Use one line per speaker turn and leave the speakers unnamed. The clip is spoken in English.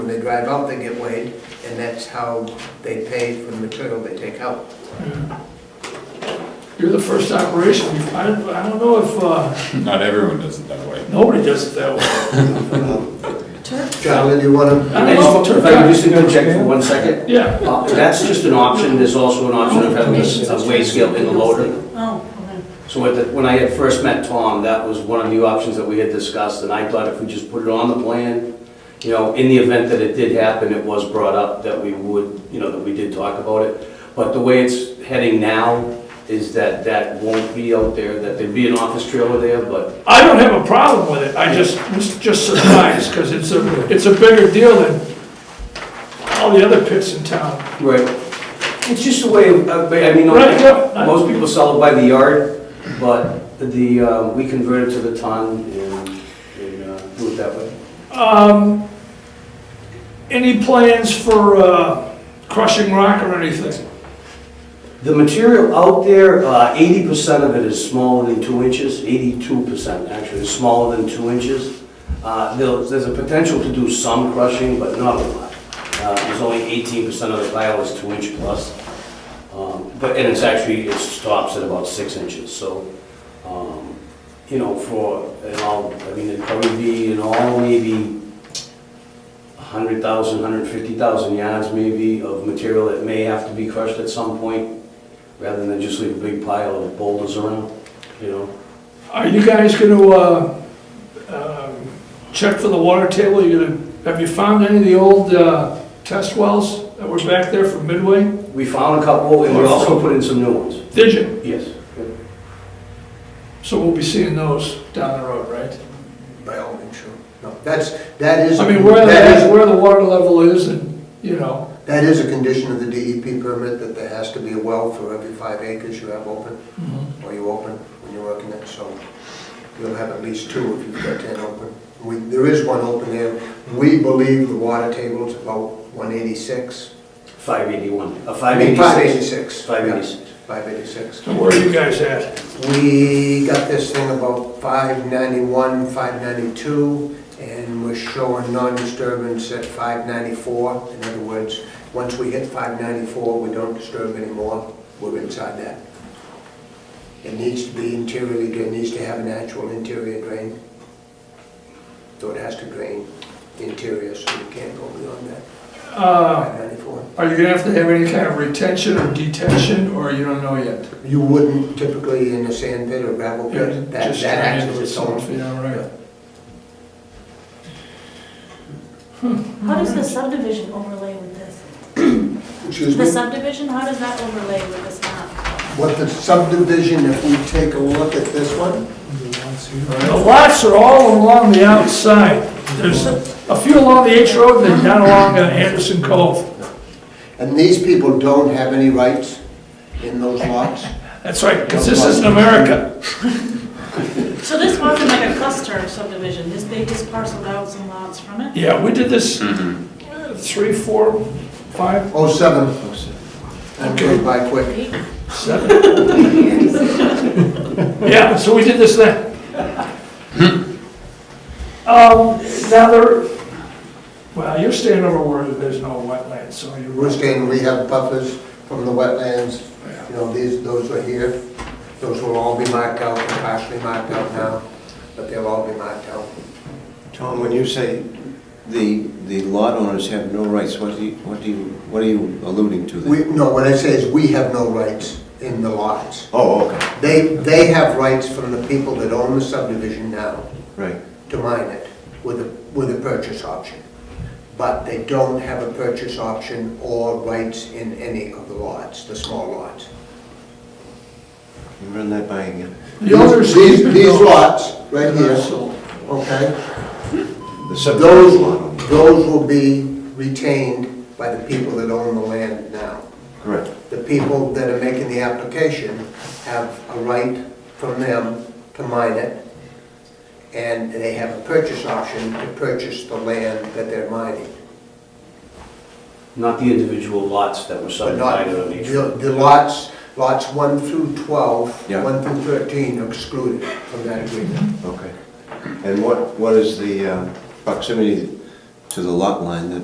they drive out, they get weighed, and that's how they pay for the material they take out.
You're the first operation, I don't, I don't know if, uh,
Not everyone does it that way.
nobody does it that way.
Charlie, do you wanna?
I
If
don't know.
I could just interject for one second,
Yeah,
Uh, that's just an option, there's also an option of having a a weigh scale in the loader.
Oh, okay.
So at the- when I had first met Tom, that was one of the options that we had discussed, and I thought if we just put it on the plan, you know, in the event that it did happen, it was brought up that we would, you know, that we did talk about it. But the way it's heading now is that that won't be out there, that there'd be an office trailer there, but
I don't have a problem with it, I just, was just surprised, because it's a, it's a bigger deal than all the other pits in town.
Right. It's just a way of, of- I mean,
Right, yeah.
most people sell it by the yard, but the, uh, we convert it to the ton and, and uh, do it that way.
Um, any plans for, uh, crushing rock or anything?
The material out there, uh, eighty percent of it is smaller than two inches, eighty-two percent actually is smaller than two inches. Uh, there'll- There's a potential to do some crushing, but not a lot. Uh, There's only eighteen percent of the pile is two inch plus. Um, But, and it's actually, it stops at about six inches, so, um, you know, for, and all, I mean, it'd probably be in all maybe a hundred thousand, hundred fifty thousand yards maybe of material that may have to be crushed at some point rather than just leave a big pile of boulders around, you know?
Are you guys gonna, uh, um, check for the water table, you gonna, have you found any of the old, uh, test wells that were back there from Midway?
We found a couple, and we also put in some new ones,
Did you?
yes.
So we'll be seeing those down the road, right?
By all means, sure. No, that's, that is.
I mean, where
that is-
the, where the water level is and, you know,
That is a condition of the DEP permit, that there has to be a well for every five acres you have open,
Mm-hmm.
or you open when you're working it, so you'll have at least two if you've got ten open. We, there is one open there, we believe the water table is about one eighty-six.
Five eighty-one, uh,
I
five
mean, five eighty-six.
eighty-six. Five eighty-six.
Five eighty-six.
so where are you guys at?
We got this thing about five ninety-one, five ninety-two, and we're showing non-disturbance at five ninety-four. In other words, once we hit five ninety-four, we don't disturb anymore, we're inside that. It needs to be interiorly, it needs to have an actual interior drain. So it has to drain interior, so you can't go beyond that,
Uh,
five ninety-four.
are you gonna have to have any kind of retention or detention, or you don't know yet?
You wouldn't typically in a sand pit or gravel pit, that,
Just
that
trying
acts
to
as
do
its
something,
own.
Yeah, right.
How does the subdivision overlay with this?
Excuse me?
The subdivision, how does that overlay with this map?
what the subdivision, if we take a look at this one,
The lots are all along the outside. There's a few along the H Road and then down along uh, Anderson Cove.
and these people don't have any rights in those lots.
That's right, because this isn't America.
So this wasn't like a cluster of subdivision, this, they just parceled out some lots from it?
Yeah, we did this uh, three, four, five,
Oh, seven. That goes by quick.
Eight?
seven. Yeah, so we did this then. Um, now there, well, you're staying over where there's no wetlands, so you're.
We're saying we have buffers from the wetlands, you know, these, those are here. Those will all be marked out, and partially marked out now, but they'll all be marked out.
Tom, when you say the, the lot owners have no rights, what do you, what do you, what are you alluding to
We,
there?
no, what I say is we have no rights in the lots.
Oh, okay,
They, they have rights from the people that own the subdivision now.
right.
to mine it with a, with a purchase option. But they don't have a purchase option or rights in any of the lots, the small lots.
You Run that by again.
The others-
These, these lots, right here,
So-
okay?
The
Those,
subdivision lot owner,
those will be retained by the people that own the land now.
correct.
The people that are making the application have a right from them to mine it, and they have a purchase option to purchase the land that they're mining.
Not the individual lots that were
But not,
subdivided on each.
the the lots, lots 1 through 12,
Yeah.
1 through 13 are excluded from that agreement.
Okay. And what, what is the um, proximity uh, to the lot line that